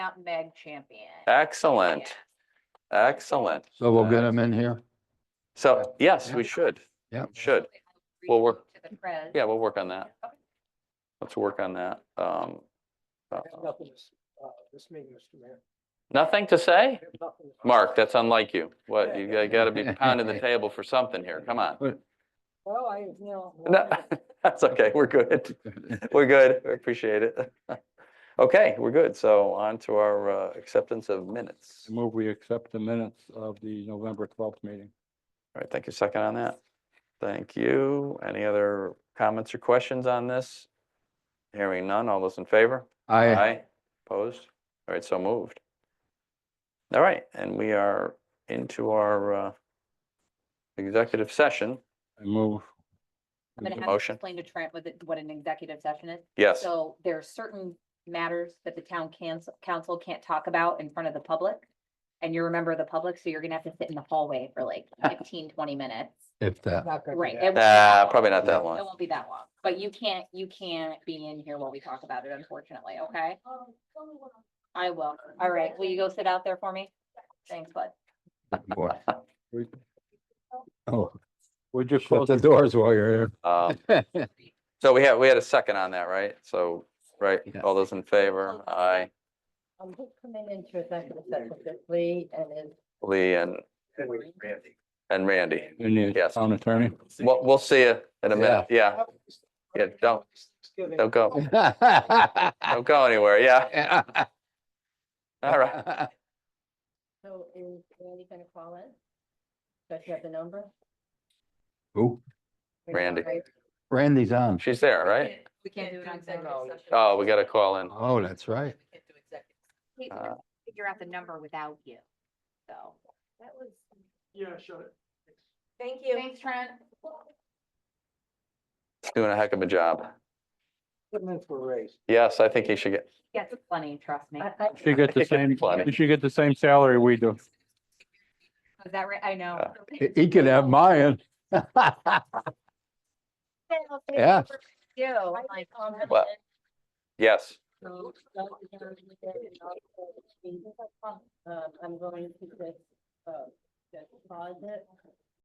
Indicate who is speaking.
Speaker 1: out Meg Champion.
Speaker 2: Excellent, excellent. Uh,
Speaker 3: So we'll get them in here.
Speaker 2: So, yes, we should.
Speaker 3: Yeah.
Speaker 2: Should. Well, we're-
Speaker 1: To the press.
Speaker 2: Yeah, we'll work on that.
Speaker 1: Okay.
Speaker 2: Let's work on that. Um, uh,
Speaker 4: I have nothing to, s- uh, this meeting, Mr. Mayor.
Speaker 2: nothing to say?
Speaker 4: I have nothing to-
Speaker 2: Mark, that's unlike you. What, you gotta- gotta be pounding the table for something here. Come on.
Speaker 4: Well, I, you know.
Speaker 2: No, that's okay. We're good. We're good. I appreciate it. Okay, we're good. So on to our uh, acceptance of minutes. All
Speaker 3: Move we accept the minutes of the November twelfth meeting.
Speaker 2: right, thank you. Second on that. Thank you. Any other comments or questions on this? Hearing none. All those in favor?
Speaker 3: I,
Speaker 2: Aye. Opposed? All right, so moved. All right, and we are into our uh, executive session.
Speaker 3: I move.
Speaker 1: I'm gonna have to
Speaker 2: Motion.
Speaker 1: explain to Trent what, it- what an executive session is.
Speaker 2: Yes,
Speaker 1: So there are certain matters that the town council, council can't talk about in front of the public. And you're a member of the public, so you're gonna have to sit in the hallway for like 15, 20 minutes.
Speaker 3: If that,
Speaker 4: Not gonna do
Speaker 1: Right.
Speaker 4: that.
Speaker 1: it won't be
Speaker 2: Nah,
Speaker 1: that long.
Speaker 2: Ah, probably not that
Speaker 1: It
Speaker 2: long.
Speaker 1: won't be that long, but you can't, you can't be in here while we talk about it, unfortunately, okay?
Speaker 4: Um,
Speaker 1: I will. All right, will you go sit out there for me? Thanks, bud.
Speaker 3: boy.
Speaker 5: We-
Speaker 3: Oh,
Speaker 5: Would you
Speaker 3: shut
Speaker 5: close,
Speaker 3: the doors while you're
Speaker 2: Um,
Speaker 3: here.
Speaker 2: So we had, we had a second on that, right? So, right,
Speaker 3: Yes.
Speaker 2: all those in favor? Aye.
Speaker 6: Um, who's coming into executive session, Is it Lee and is
Speaker 2: Lee and, and Randy.
Speaker 3: You need a
Speaker 2: Yes.
Speaker 3: town attorney.
Speaker 2: We'll, we'll see you in a minute. Yeah, Yeah, don't-
Speaker 4: Thanksgiving.
Speaker 2: don't go, don't go anywhere. Yeah, all right.
Speaker 6: so is Randy gonna call in? Does you have the number?
Speaker 3: Who?
Speaker 2: Randy.
Speaker 3: Randy's on.
Speaker 2: She's there, right?
Speaker 1: We can't do it on executive session.
Speaker 2: Oh, we got to call in.
Speaker 3: Oh, that's right.
Speaker 1: We can
Speaker 2: Uh,
Speaker 1: Figure out the number without you, so.
Speaker 6: That was,
Speaker 4: Yeah, shut it.
Speaker 6: thank you.
Speaker 1: Thanks, Trent.
Speaker 2: Doing a heck of a job.
Speaker 4: Put them in for a raise.
Speaker 2: Yes, I think he should get,
Speaker 1: Yes, plenty, trust me.
Speaker 6: I, I,
Speaker 5: she get the same,
Speaker 2: Funny.
Speaker 5: she get the same salary we do.
Speaker 1: Is that right? I know.
Speaker 3: He- He could have mine. Yeah.
Speaker 1: You,
Speaker 6: I
Speaker 1: like,
Speaker 6: um,
Speaker 2: Well- yes.
Speaker 6: so, so, um, I'm going to just, uh, just pause it